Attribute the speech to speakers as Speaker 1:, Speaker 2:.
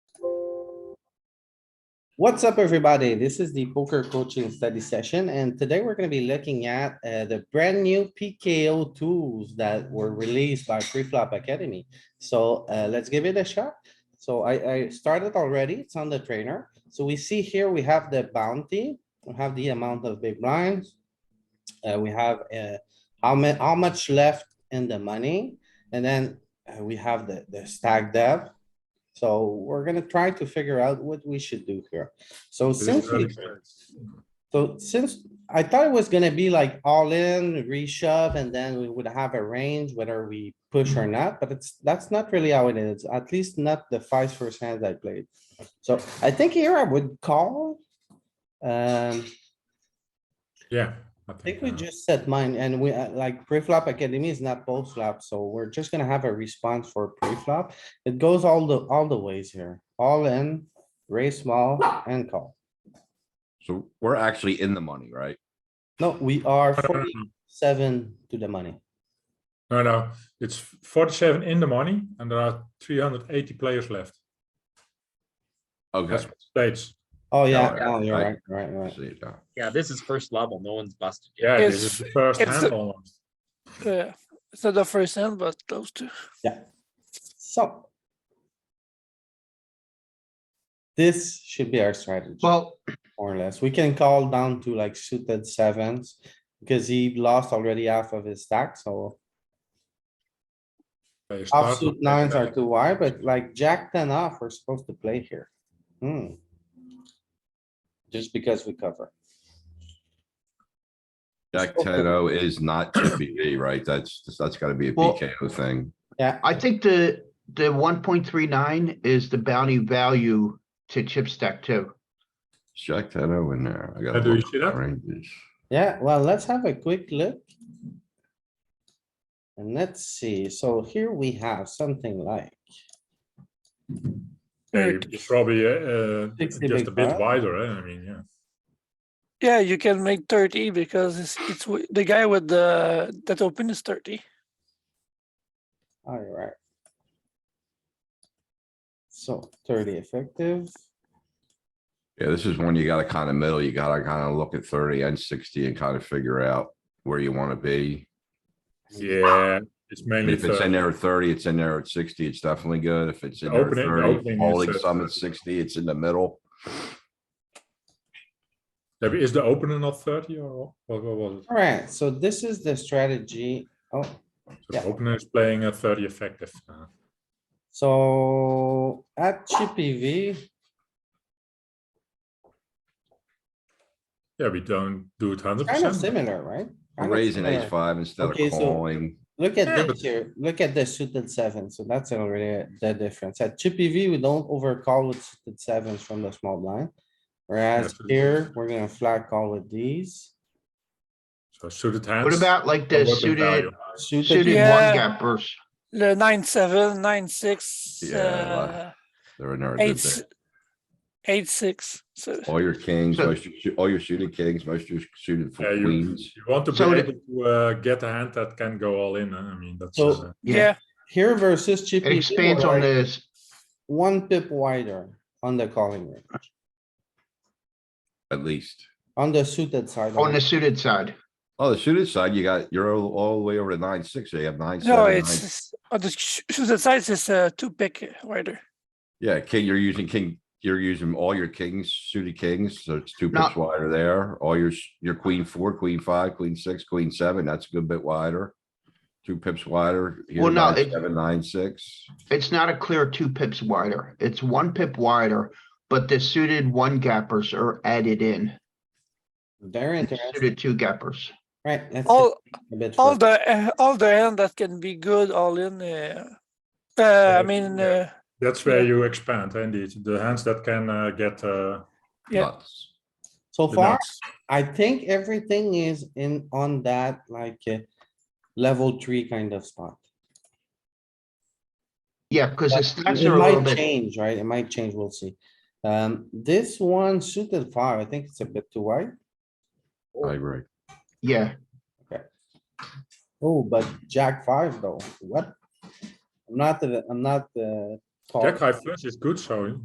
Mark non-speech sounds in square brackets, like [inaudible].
Speaker 1: What's up, everybody? This is the poker coaching study session, and today we're gonna be looking at uh, the brand new PKO tools that were released by Preflop Academy. So uh, let's give it a shot. So I, I started already. It's on the trainer. So we see here we have the bounty, we have the amount of big blinds. Uh, we have uh, how much how much left in the money, and then uh, we have the the stack depth. So we're gonna try to figure out what we should do here. So since we, so since I thought it was gonna be like all in, reshove, and then we would have a range whether we push or not, but it's, that's not really how it is, at least not the five first hands I played. So I think here I would call. Um,
Speaker 2: Yeah.
Speaker 1: I think we
Speaker 2: uh,
Speaker 1: just set mine and we uh, like pre-flop academy is not post flop, so we're just gonna have a response for pre-flop. It goes all the, all the ways here, all in, raise small and call.
Speaker 3: So we're actually in the money, right?
Speaker 1: No, we are
Speaker 2: no, no, no,
Speaker 1: forty-seven to the money.
Speaker 2: No, no, it's forty-seven in the money and there are three hundred eighty players left.
Speaker 3: Okay.
Speaker 2: That's states.
Speaker 1: Oh, yeah,
Speaker 3: yeah,
Speaker 1: oh, you're right,
Speaker 3: right.
Speaker 1: right, right.
Speaker 3: See, yeah.
Speaker 4: Yeah, this is first level. No one's busted yet.
Speaker 2: Yeah, this
Speaker 5: It's-
Speaker 2: is the first
Speaker 5: it's
Speaker 2: hand
Speaker 5: the-
Speaker 2: almost.
Speaker 5: Yeah, it's not the first hand, but close to.
Speaker 1: So. This should be our strategy,
Speaker 6: Well,
Speaker 1: more or less. We can call down to like suited sevens. Because he lost already half of his stack, so
Speaker 2: They start
Speaker 1: offsuit
Speaker 2: with
Speaker 1: nines are
Speaker 2: that.
Speaker 1: too wide, but like jack ten off, we're supposed to play here. Hmm. Just because we cover.
Speaker 3: Jack ten O is
Speaker 2: [clears throat]
Speaker 3: not GPV, right? That's, that's gotta be a
Speaker 6: Well-
Speaker 3: PKO thing.
Speaker 6: I think the, the one point three nine is the bounty value to chip stack too.
Speaker 3: Is Jack ten O in there. I
Speaker 2: Uh,
Speaker 3: gotta
Speaker 2: Do you
Speaker 3: look
Speaker 2: see
Speaker 3: at
Speaker 2: that?
Speaker 3: ranges.
Speaker 1: Yeah, well, let's have a quick look. And let's see, so here we have something like,
Speaker 2: Yeah,
Speaker 5: Yeah,
Speaker 2: you- it's probably uh, uh,
Speaker 1: 60
Speaker 2: just
Speaker 1: big
Speaker 2: a bit
Speaker 1: blind.
Speaker 2: wider, eh, I mean, yeah.
Speaker 5: Yeah, you can make thirty because it's it's wi- the guy with the that open is thirty.
Speaker 1: alright. So thirty effective,
Speaker 3: Yeah, this is one you gotta kinda middle, you gotta kinda look at thirty and sixty and kinda figure out where you wanna be.
Speaker 2: Yeah, it's uh,
Speaker 3: I mean,
Speaker 2: mainly
Speaker 3: If it's in
Speaker 2: thirty.
Speaker 3: there at thirty, it's in there at sixty, it's definitely good. If it's in there at
Speaker 2: Opening-
Speaker 3: thirty,
Speaker 2: opening
Speaker 3: folding
Speaker 2: is, uh,
Speaker 3: some at
Speaker 2: 30.
Speaker 3: sixty, it's in the middle.
Speaker 2: Yeah, Is the opener not thirty or what what was it?
Speaker 1: alright, so this is the strategy, oh,
Speaker 2: So the
Speaker 1: yeah.
Speaker 2: opener is playing at thirty effective. uh,
Speaker 1: so at chippy V,
Speaker 2: Yeah, we don't do it hundred
Speaker 1: kind of
Speaker 2: percent.
Speaker 1: similar, right? Kind of
Speaker 3: Raising
Speaker 1: similar.
Speaker 3: ace five instead of
Speaker 1: Okay, so-
Speaker 3: calling.
Speaker 1: Look at
Speaker 2: Yeah,
Speaker 1: this
Speaker 2: but-
Speaker 1: here, look at the suited seven, so that's already the difference. At Chippy V, we don't overcall with suited sevens from the small blind. Whereas
Speaker 2: so-
Speaker 1: here, we're gonna flat call with these.
Speaker 2: So suited hands.
Speaker 6: What about like the
Speaker 2: what the
Speaker 6: suited,
Speaker 2: value?
Speaker 1: Suited,
Speaker 6: suited
Speaker 1: one,
Speaker 6: one
Speaker 5: Yeah.
Speaker 6: gappers?
Speaker 5: The nine seven, nine six,
Speaker 3: Yeah,
Speaker 5: uh,
Speaker 3: like- They're in there. they're
Speaker 5: eight,
Speaker 3: there.
Speaker 5: s- eight six. So
Speaker 3: All your kings,
Speaker 6: So-
Speaker 3: most, of your- all your suited kings, most of your suited
Speaker 2: Yeah, you,
Speaker 3: queens.
Speaker 2: you want to be
Speaker 6: So the-
Speaker 2: able to uh, get a hand that can go all in. huh? I mean, that's
Speaker 1: So-
Speaker 2: uh,
Speaker 5: yeah,
Speaker 1: here versus Chippy.
Speaker 6: It
Speaker 1: V,
Speaker 6: expands on
Speaker 1: we're like
Speaker 6: this.
Speaker 1: One pip wider on the calling range,
Speaker 3: At least.
Speaker 1: on the suited side.
Speaker 6: on the suited side.
Speaker 3: Oh, the suited side, you got, you're all, all the way over to nine, six, so you have nine,
Speaker 5: no,
Speaker 3: seven,
Speaker 5: it's
Speaker 3: nine.
Speaker 5: it's- oh, the sh- sh- the size is uh, two big wider.
Speaker 3: Yeah, king, you're using king, you're using all your kings, suited kings, so it's two
Speaker 6: No.
Speaker 3: pips wider there. All your, s- your queen four, queen five, queen six, queen seven, that's a good bit wider. Two pips wider. here,
Speaker 6: Well, no,
Speaker 3: nine,
Speaker 6: it-
Speaker 3: Seven, nine, six.
Speaker 6: It's not a clear two pips wider. It's one pip wider, but the suited one gappers are added in.
Speaker 1: Very
Speaker 6: and the
Speaker 1: interesting,
Speaker 6: Suited two gappers.
Speaker 1: right? let's
Speaker 5: All
Speaker 1: take a bit
Speaker 5: all
Speaker 1: further.
Speaker 5: the uh, all the hand that can be good all in. Uh, uh, I mean,
Speaker 2: yeah.
Speaker 5: uh,
Speaker 2: that's where
Speaker 5: Yeah.
Speaker 2: you expand. eh, Indeed, the hands that can uh, get uh,
Speaker 5: Yeah.
Speaker 3: Nuts.
Speaker 1: So
Speaker 2: the
Speaker 1: far,
Speaker 2: nuts.
Speaker 1: I think everything is in, on that, like, uh, level three kind of spot.
Speaker 6: Yeah, because the
Speaker 1: But
Speaker 6: stacks
Speaker 1: It
Speaker 6: are a little
Speaker 1: might
Speaker 6: bit,
Speaker 1: change, right? It might change, we'll see. Um, this one suited five, I think it's a bit too wide.
Speaker 3: I agree.
Speaker 6: yeah.
Speaker 1: Oh, but jack five though, what? I'm not, the- I'm not, uh.
Speaker 2: Jack high first is good, so